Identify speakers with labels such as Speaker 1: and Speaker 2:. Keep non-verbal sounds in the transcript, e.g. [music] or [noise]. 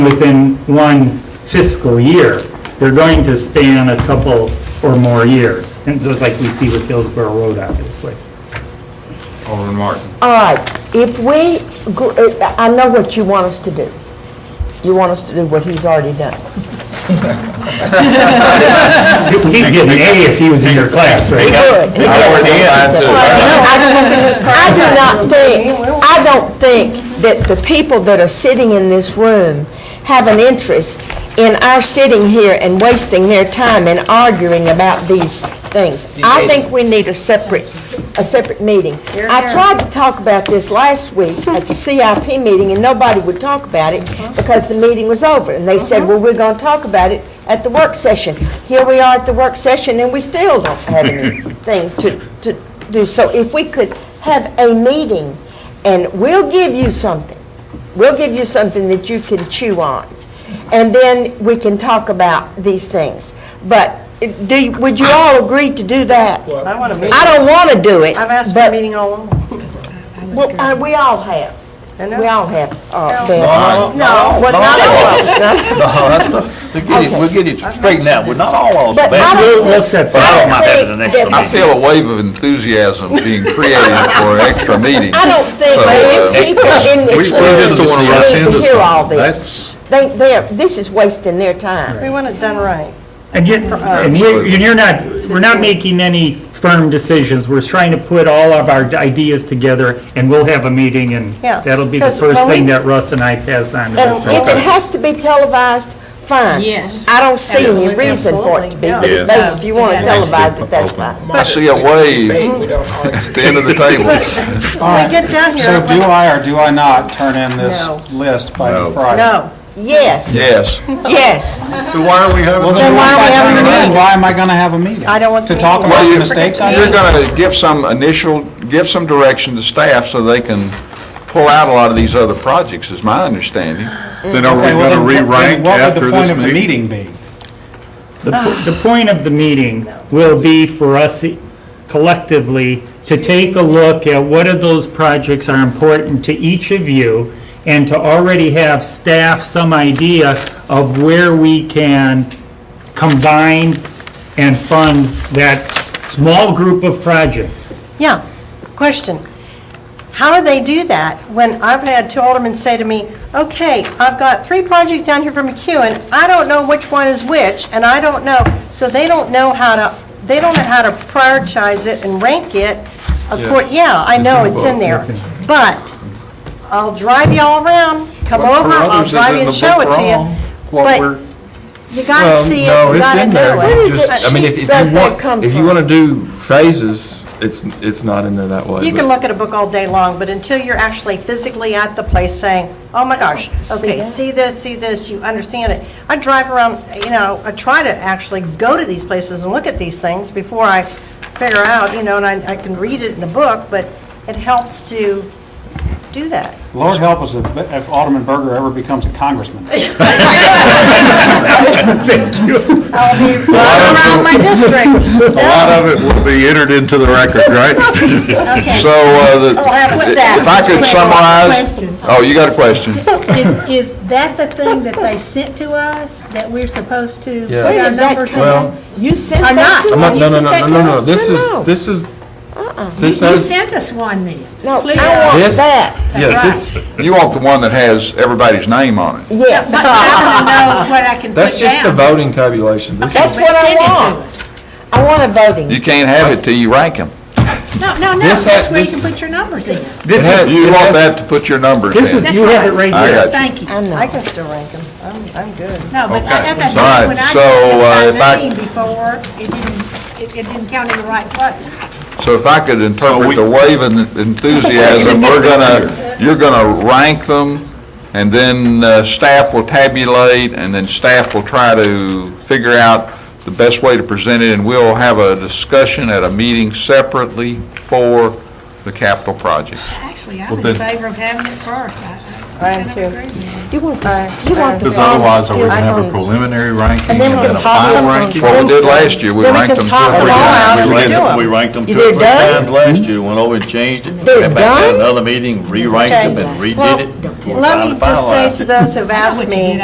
Speaker 1: within one fiscal year. They're going to span a couple or more years, and just like we see with Hillsborough Road, obviously.
Speaker 2: Alderman Martin.
Speaker 3: All right, if we, gr- uh, I know what you want us to do. You want us to do what he's already done.
Speaker 1: He'd get an A if he was in your class, right?
Speaker 3: Good.
Speaker 2: I already am.
Speaker 3: I do not think, I don't think that the people that are sitting in this room have an interest in our sitting here and wasting their time and arguing about these things. I think we need a separate, a separate meeting. I tried to talk about this last week at the CIP meeting, and nobody would talk about it because the meeting was over. And they said, well, we're going to talk about it at the work session. Here we are at the work session, and we still don't have anything to, to do. So if we could have a meeting, and we'll give you something, we'll give you something that you can chew on, and then we can talk about these things. But do, you- would you all agree to do that?
Speaker 4: I want a meeting.
Speaker 3: I don't want to do it.
Speaker 4: I've asked for
Speaker 3: but-
Speaker 4: a meeting all along.
Speaker 3: Well, uh, we all have.
Speaker 4: I know.
Speaker 3: We all have, uh,
Speaker 4: No.
Speaker 3: been.
Speaker 2: No,
Speaker 3: No, well, not all of us, no.
Speaker 5: We'll get it, we'll get it straightened out, we're not all on the
Speaker 3: But I
Speaker 5: bad.
Speaker 3: don't.
Speaker 1: We'll set
Speaker 5: But
Speaker 1: some,
Speaker 5: I don't mind having the
Speaker 3: think
Speaker 5: next
Speaker 3: that-
Speaker 5: one.
Speaker 2: I feel a wave of enthusiasm being created for extra meetings.
Speaker 3: I don't think
Speaker 2: So,
Speaker 3: that
Speaker 2: uh,
Speaker 3: people in
Speaker 2: We we
Speaker 3: this
Speaker 2: just don't want to rush
Speaker 3: room need
Speaker 2: into
Speaker 3: to hear all
Speaker 2: something.
Speaker 3: this.
Speaker 2: That's,
Speaker 3: They, they're, this is wasting their time.
Speaker 4: We want it done right.
Speaker 1: And yet, and you're, and you're not, we're not making any firm decisions. We're trying to put all of our ideas together, and we'll have a meeting, and
Speaker 4: Yeah,
Speaker 1: that'll be the
Speaker 4: 'cause
Speaker 1: first
Speaker 4: when we-
Speaker 1: thing that Russ and I pass on to
Speaker 3: And if
Speaker 1: Mr.
Speaker 3: it has to be televised, fine.
Speaker 6: Yes.
Speaker 3: I don't see any
Speaker 6: Absolutely.
Speaker 3: reason for it to be, but
Speaker 4: Absolutely,
Speaker 3: if
Speaker 2: yeah.
Speaker 3: they- if you want to televise it, that's fine.
Speaker 2: I see a wave at the end of the table.
Speaker 4: When we get down here, I
Speaker 7: So do
Speaker 4: want-
Speaker 7: I or do I not turn in this
Speaker 4: No.
Speaker 7: list by
Speaker 2: No.
Speaker 7: Friday?
Speaker 4: no,
Speaker 3: Yes,
Speaker 2: Yes.
Speaker 3: yes.
Speaker 2: Why are we having?
Speaker 7: Well, then
Speaker 3: Then why are
Speaker 7: once
Speaker 3: we
Speaker 7: I turn
Speaker 3: having
Speaker 7: it
Speaker 3: a
Speaker 7: in,
Speaker 3: meeting?
Speaker 7: why am I going to have a meeting?
Speaker 4: I don't want the
Speaker 7: To talk
Speaker 4: meeting.
Speaker 7: about
Speaker 4: Well,
Speaker 7: the
Speaker 4: you-
Speaker 7: mistakes I
Speaker 2: You're
Speaker 7: made?
Speaker 2: going to give some initial, give some direction to staff so they can pull out a lot of these other projects, is my understanding.
Speaker 8: Then are we going
Speaker 7: Okay, well,
Speaker 8: to
Speaker 7: then what- then
Speaker 8: re-rank after
Speaker 7: What would the
Speaker 8: this
Speaker 7: point of the
Speaker 8: meeting?
Speaker 7: meeting be?
Speaker 1: The, po- the point of the meeting will be for us collectively to take a look at what of those projects are important to each of you and to already have staff some idea of where we can combine and fund that small group of projects.
Speaker 4: yeah. Question. How do they do that when I've had two aldermen say to me, okay, I've got three projects down here for McEwen, I don't know which one is which, and I don't know, so they don't know how to, they don't know how to prioritize it and rank it. Of course, yeah, I know it's in there, but I'll drive you all around, come
Speaker 2: Well, for
Speaker 4: over, I'll
Speaker 2: others, it's
Speaker 4: drive
Speaker 2: in
Speaker 4: you and
Speaker 2: the
Speaker 4: show
Speaker 2: book
Speaker 4: it to
Speaker 2: wrong,
Speaker 4: you.
Speaker 2: what
Speaker 4: But
Speaker 2: we're-
Speaker 4: You gotta see it, you gotta know it.
Speaker 3: that
Speaker 9: I mean, if
Speaker 3: sheet
Speaker 9: if
Speaker 3: that
Speaker 9: you
Speaker 3: they
Speaker 9: want,
Speaker 3: come
Speaker 9: if you
Speaker 3: from?
Speaker 9: want to do phases, it's, it's not in there that way.
Speaker 4: You
Speaker 9: but-
Speaker 4: can look at a book all day long, but until you're actually physically at the place saying, oh my gosh, okay, see this, see this, you understand it. I drive around, you know, I try to actually go to these places and look at these things before I figure out, you know, and I, I can read it in the book, but it helps to do that.
Speaker 7: Lord help us if if Alderman Berger ever becomes a congressman.
Speaker 4: I'll be running around my district.
Speaker 8: A lot of it will be entered into the record, right?
Speaker 4: Okay.
Speaker 2: [laughs] So, uh, the-
Speaker 4: I'll have staff.
Speaker 2: if I could
Speaker 4: Wait,
Speaker 2: summarize,
Speaker 4: question.
Speaker 2: oh, you got a question?
Speaker 6: Is, is that the thing that they sent to us, that we're supposed to put
Speaker 9: Yeah.
Speaker 3: Where
Speaker 6: our
Speaker 3: did that
Speaker 6: numbers
Speaker 9: Well-
Speaker 6: in?
Speaker 3: You sent
Speaker 6: I'm
Speaker 3: that
Speaker 6: not.
Speaker 3: to us?
Speaker 9: I'm not,
Speaker 3: You
Speaker 9: no, no,
Speaker 3: sent
Speaker 9: no,
Speaker 3: that
Speaker 9: no,
Speaker 3: to
Speaker 9: no, no,
Speaker 3: us?
Speaker 9: this
Speaker 3: No,
Speaker 9: is,
Speaker 3: no.
Speaker 9: this is, this
Speaker 6: You
Speaker 9: has,
Speaker 6: sent us one then.
Speaker 3: No,
Speaker 6: Please.
Speaker 3: I want
Speaker 9: this,
Speaker 3: that.
Speaker 9: yes, it's,
Speaker 2: You want the one that has everybody's name on it.
Speaker 3: Yes,
Speaker 6: But I don't know what I can put down.
Speaker 9: that's just the voting tabulation. This
Speaker 3: that's
Speaker 9: is,
Speaker 3: what I want.
Speaker 6: Send it
Speaker 3: I want a voting.
Speaker 2: You can't have it till you rank them.
Speaker 6: to us. No, no, no,
Speaker 9: This
Speaker 6: that's
Speaker 9: ha-
Speaker 6: where you
Speaker 9: this-
Speaker 6: can put your numbers in.
Speaker 1: This is,
Speaker 2: You want that to put your numbers
Speaker 1: this is,
Speaker 2: in.
Speaker 1: you have it right
Speaker 2: I
Speaker 1: here.
Speaker 2: got you.
Speaker 6: Thank you.
Speaker 3: I know.
Speaker 4: I can still rank them. I'm, I'm good.
Speaker 6: No, but
Speaker 2: Okay.
Speaker 6: as I
Speaker 2: All right,
Speaker 6: said, when I
Speaker 2: so, uh,
Speaker 6: did
Speaker 2: if
Speaker 6: this
Speaker 2: I-
Speaker 6: by name before, it didn't, it- it didn't count in the right place.
Speaker 2: So if I could interpret the wave of
Speaker 1: [laughs]
Speaker 2: enthusiasm, we're gonna, you're gonna rank them, and then uh, staff will tabulate, and then staff will try to figure out the best way to present it, and we'll have a discussion at a meeting separately for the capital project.
Speaker 6: Actually, I'm
Speaker 2: Well,
Speaker 6: in
Speaker 2: then-
Speaker 6: favor of having it first. I- I
Speaker 4: I am
Speaker 6: kind of
Speaker 4: too.
Speaker 6: agree with
Speaker 3: You
Speaker 6: you.
Speaker 3: want
Speaker 4: Uh,
Speaker 3: this, you want the.
Speaker 8: Because otherwise, are we
Speaker 3: voting
Speaker 8: going to have a
Speaker 3: system.
Speaker 8: preliminary ranking and
Speaker 3: then we
Speaker 8: then
Speaker 3: can
Speaker 8: a
Speaker 3: toss
Speaker 8: final
Speaker 3: them.
Speaker 8: ranking?
Speaker 2: What we did last year, we
Speaker 3: Then we
Speaker 2: ranked
Speaker 3: can
Speaker 2: them two or
Speaker 3: toss them
Speaker 2: three
Speaker 3: all out.
Speaker 2: times.
Speaker 3: We
Speaker 2: ranked them.
Speaker 10: We ranked them
Speaker 3: You
Speaker 10: two or
Speaker 3: did
Speaker 10: three
Speaker 3: done?
Speaker 10: times last year, went over and changed them,
Speaker 3: They're
Speaker 10: went back
Speaker 3: done?
Speaker 10: to another meeting, re-ranked them and redid it.
Speaker 4: Let me just say to those who've asked me,